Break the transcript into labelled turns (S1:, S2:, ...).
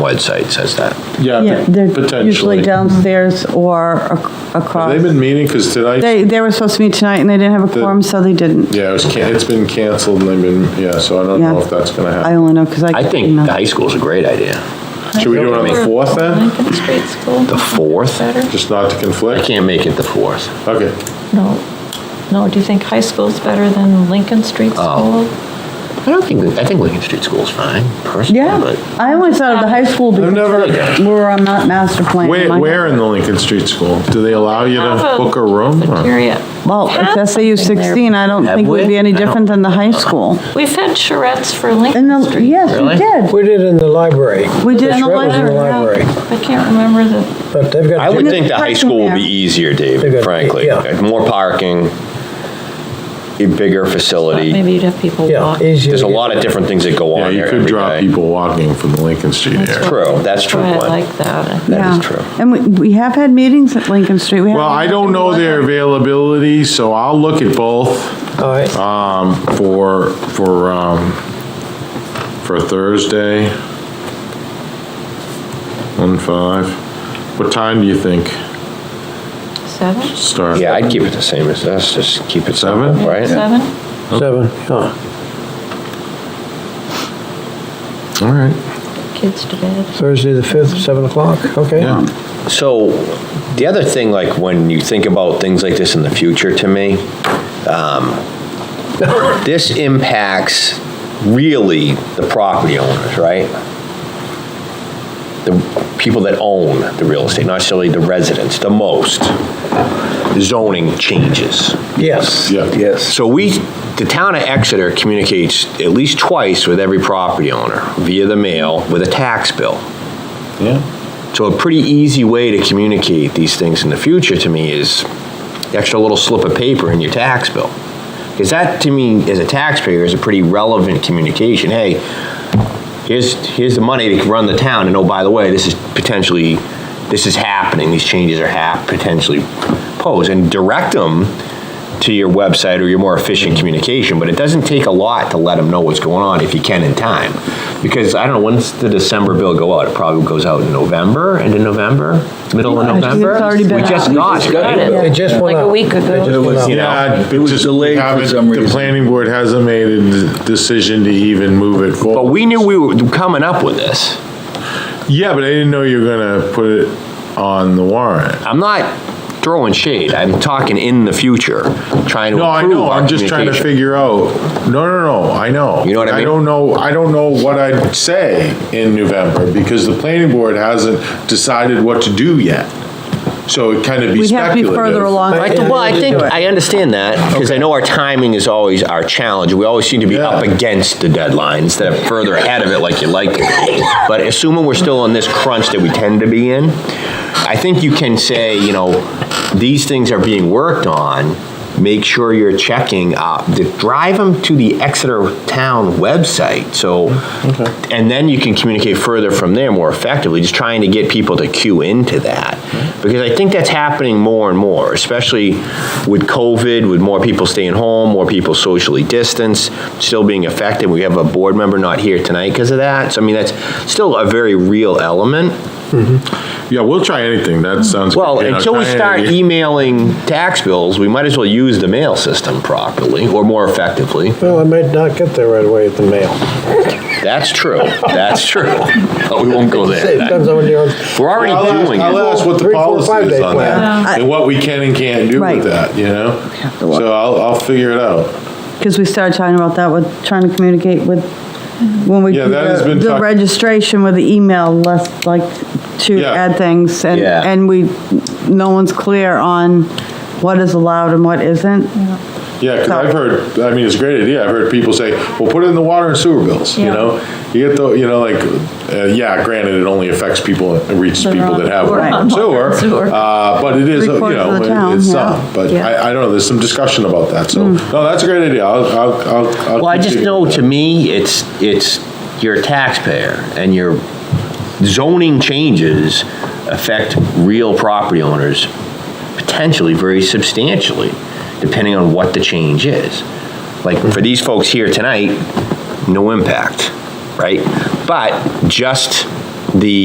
S1: website says that.
S2: Yeah,
S3: Yeah, they're usually
S2: potentially.
S3: downstairs or ac-
S2: They've
S3: across.
S2: been meeting, because did I,
S3: They, they were supposed to meet tonight and they didn't have a quorum, so they didn't.
S2: yeah, it was, can- it's been canceled and they've been, yeah, so I don't know
S3: Yeah.
S2: if that's gonna
S3: I
S2: happen.
S3: only know because I. uh,
S1: I think
S3: emailed.
S1: the high school's a great idea.
S2: Should we do it on the fourth then?
S4: Lincoln Street School.
S1: The fourth?
S4: Better?
S2: Just not to
S1: I
S2: conflict?
S1: can't make it the fourth.
S2: Okay,
S4: No, no, do you think high school's better than Lincoln
S2: Oh.
S4: Street School?
S1: I don't think, I think Lincoln Street School's fine, personally,
S3: Yeah,
S1: but
S3: I always thought of the high school
S2: I've
S3: because
S2: never,
S3: we're on that master plan.
S2: where,
S3: My-
S2: where in the Lincoln Street School? Do they allow you to
S4: Have
S2: book a room? or-
S4: cafeteria.
S3: Well, if SAU
S4: Have something there.
S3: 16, I don't
S1: Have
S3: think
S1: we?
S3: would be any
S1: I don't-
S3: different than the high school.
S4: We've had charrettes for Lincoln
S3: And the,
S4: Street.
S3: yes,
S1: Really?
S3: we did.
S5: We did in the library.
S3: We did in the
S5: That's right, it was in the
S3: library.
S5: library.
S4: I can't remember the,
S5: But they've
S1: I
S5: got,
S1: would
S3: And
S1: think the high
S3: parking
S1: school would
S3: there.
S1: be easier,
S5: They
S1: Dave,
S5: got-
S1: frankly.
S5: yeah.
S1: More parking, a bigger facility.
S4: maybe you'd have people
S5: yeah,
S4: walk.
S5: easier.
S1: There's
S5: to
S1: a
S5: get-
S1: lot of different things that go
S2: Yeah,
S1: on
S2: you
S1: there
S2: could
S1: every
S2: draw
S1: day.
S2: people walking from the Lincoln Street area.
S1: True, that's true.
S4: That's why I
S1: one.
S4: like that.
S1: That is
S3: Yeah.
S1: true.
S3: And we, we have had meetings at Lincoln Street.
S2: Well, I don't know their availability, so I'll look at both.
S5: All right,
S1: uh,
S2: Um, for, for, um, for Thursday. One five. What time do you think
S4: Seven?
S2: start?
S1: Yeah, I'd keep it the same as us, just keep it simple,
S2: Seven?
S1: right?
S4: Seven?
S5: seven, uh, yeah,
S2: All right,
S4: Kids to bed.
S5: Thursday the 5th, 7 o'clock, okay?
S2: yeah.
S1: So, the other thing, like, when you think about things like this in the future, to me, um, this impacts really the property owners, right? The people that own the real estate, not necessarily the residents, the most. Zoning changes.
S5: Yes.
S2: Yeah.
S5: Yes.
S1: So we, the town of Exeter communicates at least twice with every property owner via the mail with a tax bill.
S2: Yeah.
S1: So a pretty easy way to communicate these things in the future to me is the extra little slip of paper in your tax bill. Because that, to me, as a taxpayer, is a pretty relevant communication. Hey, here's, here's the money to run the town, and oh, by the way, this is potentially, this is happening, these changes are hap, potentially posed, and direct them to your website or your more efficient communication, but it doesn't take a lot to let them know what's going on if you can in time. Because, I don't know, when's the December bill go out? It probably goes out in November, end of November, middle of
S3: Yeah, I think
S1: November?
S3: it's already been
S1: We just
S3: out.
S1: got it, right?
S5: They just went
S4: Like a
S5: out.
S4: week ago.
S5: They just
S4: It
S5: went
S6: was-
S5: out.
S2: Yeah.
S6: It was
S2: just-
S6: delayed for
S2: haven't-
S6: some
S2: The
S6: reason.
S2: planning board hasn't made a decision to even move it forward.
S1: But we knew we were coming up with this.
S2: Yeah, but I didn't know you were gonna put it on the warrant.
S1: I'm not throwing shade, I'm talking in the future, trying to improve
S2: No,
S1: our
S2: I know, I'm just trying to
S1: communication.
S2: figure out, no, no, no, I know.
S1: You know what I mean?
S2: I don't know, I don't know what I'd say in November, because the planning board hasn't decided what to do yet. So it kind of be
S3: We'd have to be
S2: speculative.
S3: further along.
S1: I
S5: Right,
S1: th-
S5: Yeah,
S1: Well, I
S5: we'll
S1: think,
S5: do it.
S1: I understand that, because I know our timing is always our challenge. We always seem to be
S2: Yeah.
S1: up against the deadline instead of further ahead of it like you like to be. But assuming we're still in this crunch that we tend to be in, I think you can say, you know, these things are being worked on, make sure you're checking, uh, the- drive them to the Exeter Town website, so,
S2: Mm-hmm.
S1: and then you can communicate further from there more effectively, just trying to get people to cue into that. Because I think that's happening more and more, especially with COVID, with more people staying home, more people socially distanced, still being affected. We have a board member not here tonight because of that, so I mean, that's still a very real element.
S2: Yeah, we'll try anything, that sounds.
S1: Well,
S2: you know,
S1: until we
S2: try
S1: start
S2: anything.
S1: emailing tax bills, we might as well use the mail system properly or more effectively.
S5: Well, I might not get there right away at the mail.
S1: That's true, that's true, but we won't go
S5: It
S1: there.
S5: depends on when you're on.
S1: We're already
S2: I'll ask-
S1: doing it.
S2: I'll ask what the
S5: Three, four,
S2: policy
S5: five-day
S2: is on
S5: plan.
S2: that, and what we can and can't do
S3: Right.
S2: with that, you know?
S3: to look.
S2: So I'll, I'll figure it out.
S3: Because we started talking about that with, trying to communicate with, when we
S2: Yeah,
S3: do
S2: that has
S3: the
S2: been
S3: the
S2: talk-
S3: registration with the email, less like to
S2: Yeah.
S3: add things. And,
S1: Yeah.
S3: and we, no one's clear on what is allowed and what isn't.
S2: Yeah, because I've heard, I mean, it's a great idea. I've heard people say, well, put it in the water and sewer bills, you
S4: Yeah.
S2: know? You get the, you know, like, uh, yeah, granted, it only affects people, it reaches
S4: That are
S2: people
S4: on-
S2: that have
S4: who are
S2: water
S4: on
S2: and
S4: water
S2: sewer.
S4: and sewer.
S2: uh, But it is, you
S3: Three-quarters
S2: know,
S3: of the town,
S2: it- it's
S3: yeah.
S2: some, but
S4: Yeah.
S2: I, I don't know, there's some discussion about that, so, no, that's a great idea. I'll, I'll, I'll. I'll
S1: Well, I
S2: keep
S1: just
S2: digging.
S1: know, to me, it's, it's, you're a taxpayer, and your zoning changes affect real property owners potentially very substantially, depending on what the change is. Like, for these folks here tonight, no impact, right? But just the